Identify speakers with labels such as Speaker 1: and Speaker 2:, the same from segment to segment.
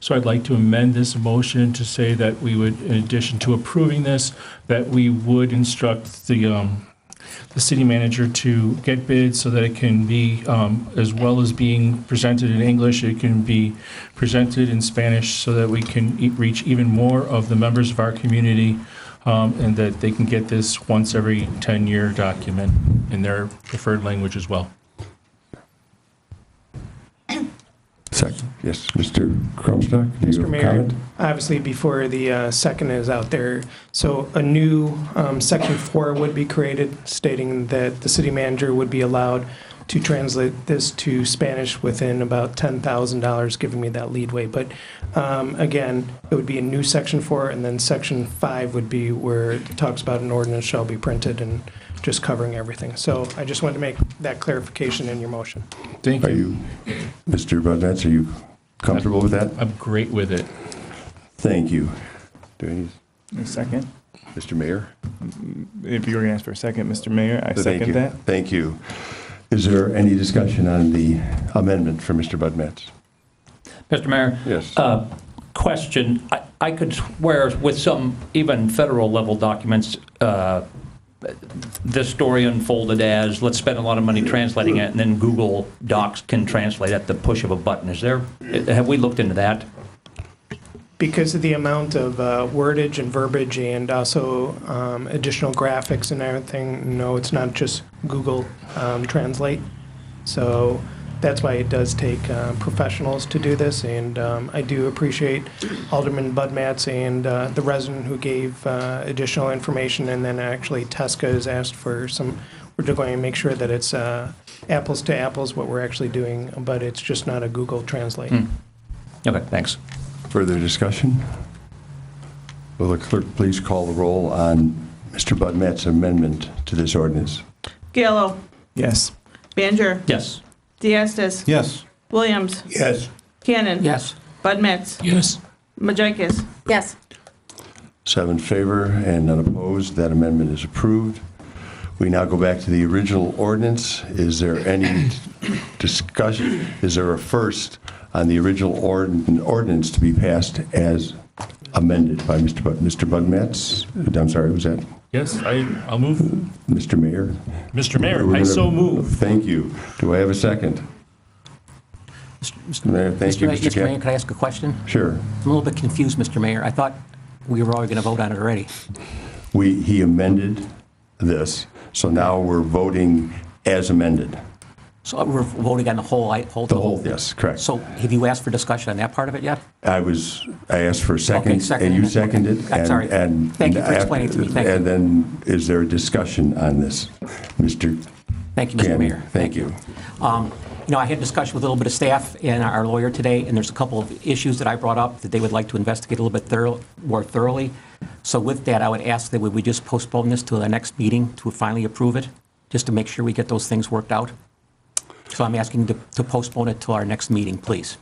Speaker 1: So I'd like to amend this motion to say that we would, in addition to approving this, that we would instruct the, um, the city manager to get bids so that it can be, um, as well as being presented in English, it can be presented in Spanish so that we can e- reach even more of the members of our community um, and that they can get this once every 10-year document in their preferred language as well.
Speaker 2: Second. Yes, Mr. Comstock, do you
Speaker 3: Mr.
Speaker 2: have a
Speaker 3: Mayor,
Speaker 2: comment?
Speaker 3: obviously before the uh, second is out there, so a new um, section four would be created stating that the city manager would be allowed to translate this to Spanish within about $10,000, giving me that leadway. But um, again, it would be a new section four, and then section five would be where it talks about an ordinance shall be printed and just covering everything. So I just wanted to make that clarification in your motion.
Speaker 1: Thank
Speaker 2: Are
Speaker 1: you.
Speaker 2: you, Mr. Bondanza, are you comfortable with that?
Speaker 1: I'm great with it.
Speaker 2: Thank you. Do I need-
Speaker 4: A second.
Speaker 2: Mr. Mayor?
Speaker 4: If you were going to ask for a second, Mr. Mayor, I
Speaker 2: Thank you.
Speaker 4: second that.
Speaker 2: Thank you. Is there any discussion on the amendment for Mr. Budmetz?
Speaker 5: Mr. Mayor,
Speaker 2: Yes.
Speaker 5: uh, question. I- I could swear with some even federal level documents, uh, this story unfolded as, let's spend a lot of money translating it, and then Google Docs can translate at the push of a button. Is there, have we looked into that?
Speaker 3: because of the amount of uh, wordage and verbiage and also um, additional graphics and everything, no, it's not just Google um, Translate. So that's why it does take uh, professionals to do this. And um, I do appreciate Alderman Budmatz and uh, the resident who gave uh, additional information. And then actually, Tesca has asked for some. We're going to make sure that it's uh, apples to apples what we're actually doing, but it's just not a Google Translate.
Speaker 5: Okay, thanks.
Speaker 2: Further discussion? Will the clerk please call the roll on Mr. Budmetz's amendment to this ordinance?
Speaker 6: Gallo.
Speaker 4: Yes.
Speaker 6: Baner.
Speaker 5: Yes.
Speaker 6: Diastis.
Speaker 7: Yes.
Speaker 6: Williams.
Speaker 2: Yes.
Speaker 6: Cannon.
Speaker 5: Yes.
Speaker 6: Bud Matts.
Speaker 1: Yes.
Speaker 6: Majekis.
Speaker 8: Yes.
Speaker 2: Seven in favor and none opposed. That amendment is approved. We now go back to the original ordinance. Is there any discussion? Is there a first on the original ordn- ordinance to be passed as amended by Mr. Bud, Mr. Budmetz? I'm sorry, was that
Speaker 1: Yes, I, I'll move.
Speaker 2: Mr. Mayor?
Speaker 1: Mr. Mayor,
Speaker 2: We're
Speaker 1: I
Speaker 2: gonna-
Speaker 1: so move.
Speaker 2: Thank you. Do I have a second? Mr. Mayor, thank
Speaker 9: Mr.
Speaker 2: you,
Speaker 9: Ma-
Speaker 2: Mr.
Speaker 9: Mr. Mayor,
Speaker 2: Cap.
Speaker 9: could I ask a question?
Speaker 2: Sure.
Speaker 9: I'm a little bit confused, Mr. Mayor. I thought we were already going to vote on it already.
Speaker 2: We, he amended this, so now we're voting as amended.
Speaker 9: So we're voting on the whole, I, whole.
Speaker 2: The whole, yes, correct.
Speaker 9: So have you asked for discussion on that part of it yet?
Speaker 2: I was, I asked for a second,
Speaker 9: second
Speaker 2: and you
Speaker 9: amendment.
Speaker 2: seconded.
Speaker 9: I'm
Speaker 2: and-
Speaker 9: sorry.
Speaker 2: and-
Speaker 9: Thank you for
Speaker 2: and after-
Speaker 9: explaining it to me. Thank you.
Speaker 2: And then, is there a discussion on this, Mr.
Speaker 9: Thank you, Mr.
Speaker 2: Gannon?
Speaker 9: Mayor.
Speaker 2: Thank you.
Speaker 9: Um, You know, I had a discussion with a little bit of staff and our lawyer today, and there's a couple of issues that I brought up that they would like to investigate a little bit thorough, more thoroughly. So with that, I would ask that we- we just postpone this to the next meeting to finally approve it, just to make sure we get those things worked out. So I'm asking to to postpone it to our next meeting, please.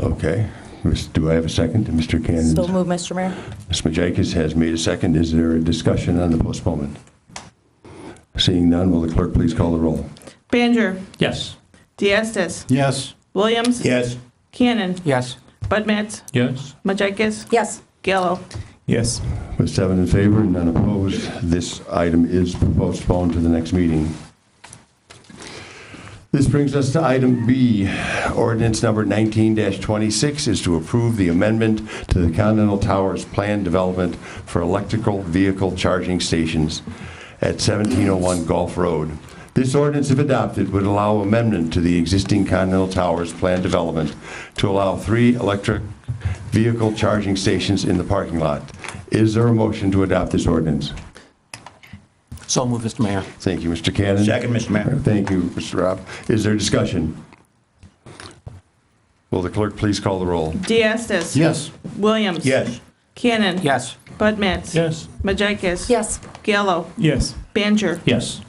Speaker 2: Okay. Miss- Do I have a second? Mr. Cannon?
Speaker 8: So move, Mr. Mayor.
Speaker 2: Ms. Majakis has made a second. Is there a discussion on the postponement? Seeing none, will the clerk please call the roll?
Speaker 6: Baner.
Speaker 5: Yes.
Speaker 6: Diastis.
Speaker 7: Yes.
Speaker 6: Williams.
Speaker 2: Yes.
Speaker 6: Cannon.
Speaker 9: Yes?
Speaker 6: Bud Matts.
Speaker 1: Yes.
Speaker 6: Majekis.
Speaker 8: Yes.
Speaker 6: Gallo.
Speaker 4: Yes.
Speaker 2: With seven in favor and none opposed, this item is postponed to the next meeting. This brings us to item B. Ordinance number 19-26 is to approve the amendment to the Continental Towers Plan Development for Electrical Vehicle Charging Stations at 1701 Gulf Road. This ordinance, if adopted, would allow amendment to the existing Continental Towers Plan Development to allow three electric vehicle charging stations in the parking lot. Is there a motion to adopt this ordinance?
Speaker 9: So move, Mr. Mayor.
Speaker 2: Thank you, Mr. Cannon.
Speaker 7: Second, Mr. Mayor.
Speaker 2: Thank you, Mr. Rob. Is there discussion? Will the clerk please call the roll?
Speaker 6: Diastis.
Speaker 7: Yes.
Speaker 6: Williams. Cannon.
Speaker 9: Yes?
Speaker 6: Bud Matts.
Speaker 1: Yes.
Speaker 6: Majekis.
Speaker 8: Yes.
Speaker 6: Gallo.
Speaker 4: Yes.
Speaker 6: Baner.
Speaker 5: Yes.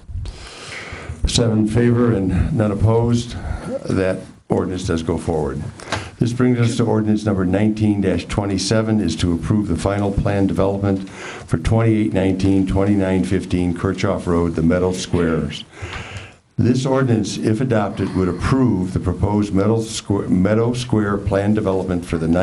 Speaker 2: Seven in favor and none opposed. That ordinance does go forward. This brings us to ordinance number 19-27 is to approve the final plan development for 2819, 2915 Kirchhoff Road, the Meadow Squares. This ordinance, if adopted, would approve the proposed Meadow Square, Meadow Square plan development for the